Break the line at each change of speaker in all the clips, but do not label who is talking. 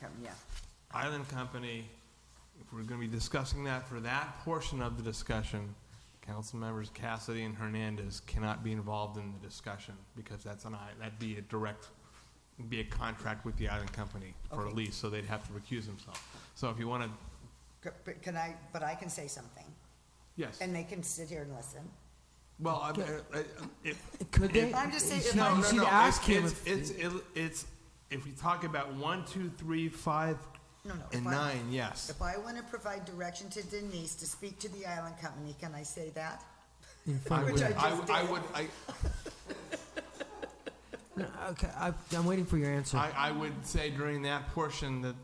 Kevin, yeah.
Island Company, if we're going to be discussing that, for that portion of the discussion, council members Cassidy and Hernandez cannot be involved in the discussion because that's an, i- that'd be a direct, be a contract with the Island Company for a
Okay.
lease, so they'd have to recuse themselves. So if you want to,
C- But can I, but I can say something,
yes,
and they can sit here and listen.
well, I- I- I- it-
Could they?
I'm just saying, if
No,
I'm-
you
no,
should
no,
ask
it's-
him. if-
It's, it's, it's, if we talk about one, two, three, five,
No, no.
and
if I-
nine, yes.
If I want to provide direction to Denise to speak to the island company, can I say that?
I
Which
would,
I
I
just
would- I
did.
would, I,
No, Okay, I, I'm waiting for your answer.
I, I would say during that portion that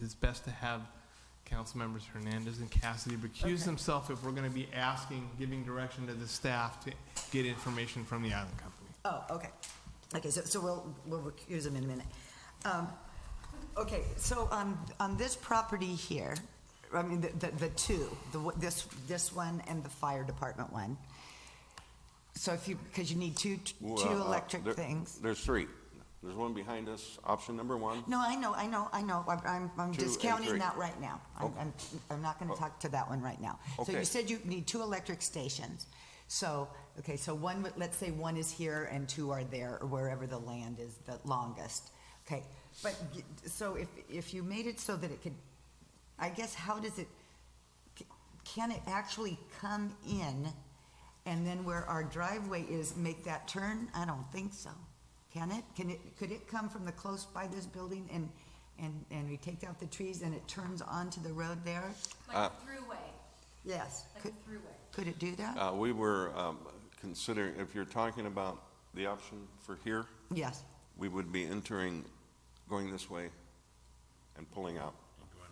it's best to have council members Hernandez and Cassidy recuse
Okay.
themselves if we're gonna be asking, giving direction to the staff to get information from the island company.
Oh, okay. Okay, so, so we'll, we'll recuse him in a minute. Um, Okay, so on, on this property here, I mean, the, the- the two, the, one- this, this one and the fire department one. So if you, because you need two,
Well,
two
uh,
electric
there-
things.
There's three. There's one behind us, option number one.
No, I know, I know, I know. I'm- I'm, I'm
Two and
discounting
three. Oh.
that right now. I'm, I'm, I'm not gonna talk to that one right now. So you
Okay.
said you need two electric stations. So, okay, so one, would- let's say one is here and two are there, or wherever the land is the longest. Okay, but, y- so if, if you made it so that it could, I guess, how does it, c- can it actually come in? And then where our driveway is, make that turn? I don't think so. Can it? Can it, could it come from the close by this building and, and, and we take out the trees and it turns onto the road there?
Uh,
Like a throughway,
Yes.
like a
Could,
throughway.
could it do that?
Uh, We were um, considering, if you're talking about the option for here,
Yes.
we would be entering, going this way and pulling out.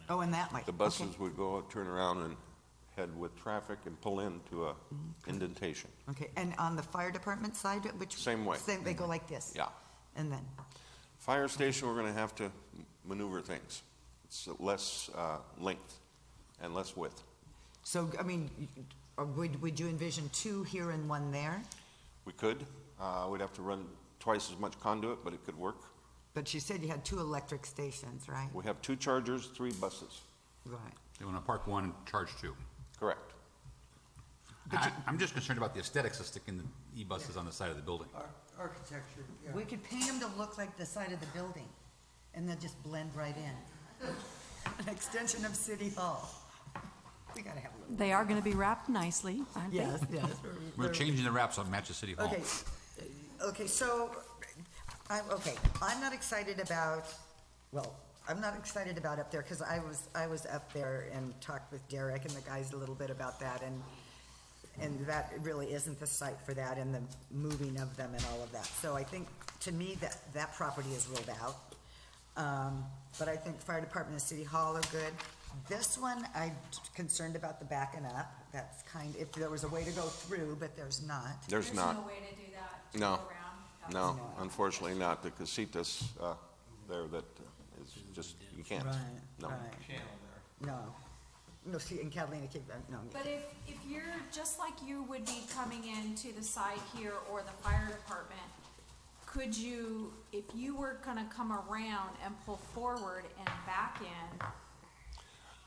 Oh, and that way.
The
Okay.
buses would go, turn around and head with traffic and pull into a
Mm-hmm.
indentation.
Okay, and on the fire department side, which?
Same way. Mm-hmm.
Same, they go like this?
Yeah.
And then,
Fire station, we're going to have to maneuver things. It's less uh, length and less width.
so, I mean, you- or would, would you envision two here and one there?
We could, uh, we'd have to run twice as much conduit, but it could work.
But you said you had two electric stations, right?
We have two chargers, three buses.
Right.
They want to park one and charge two.
Correct.
I, I'm just concerned about the aesthetics of sticking the e-buses on the side of the building.
Architecture, yeah.
We could paint them to look like the side of the building, and they'll just blend right in. An extension of City Hall. We gotta have a little.
They are going to be wrapped nicely, aren't they?
Yes, yes.
We're changing the wraps on Matcha City Hall.
Okay, okay, so, I'm, okay, I'm not excited about, well, I'm not excited about up there, because I was, I was up there and talked with Derek and the guys a little bit about that, and, and that really isn't the site for that, and the moving of them and all of that. So I think, to me, that, that property is ruled out. Um, but I think fire department and city hall are good. This one, I'm concerned about the backing up, that's kind, if there was a way to go through, but there's not.
There's
no
not,
way to do that. to
No.
go around. That
no,
was-
unfortunately not. The casitas uh, there that uh, is just, you can't.
Right,
No.
right. No, no, see, in Catalina, Cape, uh, no.
But if, if you're, just like you would be coming in to the side here or the fire department, could you, if you were gonna come around and pull forward and back in,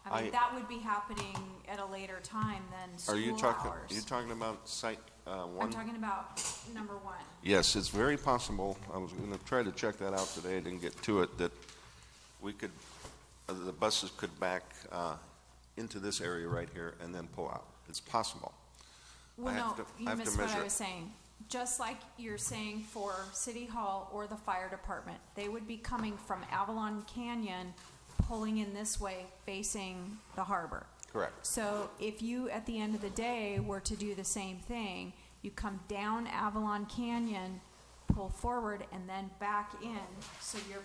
I
I-
mean, that would be happening at a later time than
Are you
school
talking, you
hours.
talking about site uh,
I'm
one?
talking about number one.
Yes, it's very possible, I was going to try to check that out today, I didn't get to it, that we could, uh, the buses could back uh, into this area right here and then pull out. It's possible.
Well,
have
no,
to- I
you
have to
missed what
measure
I
it.
was saying. Just like you're saying for City Hall or the fire department, they would be coming from Avalon Canyon, pulling in this way, facing the harbor.
Correct.
So if you, at the end of the day, were to do the same thing, you come down Avalon Canyon, pull forward, and then back in, so you're,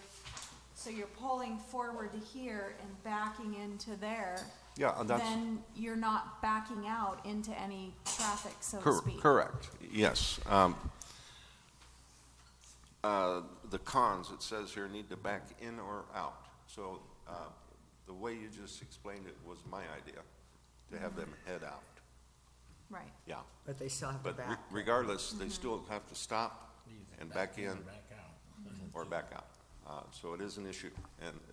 so you're pulling forward to here and backing into there.
Yeah, and that's-
Then you're not backing out into any traffic, so to
Cor-
speak.
Correct, yes. Um, uh, The cons, it says here, need to back in or out. So uh, the way you just explained it was my idea, to have them head out.
Right.
Yeah,
But they still have to
but re-
back.
regardless, they still have to stop and back in or back out. Uh, So it is an issue, and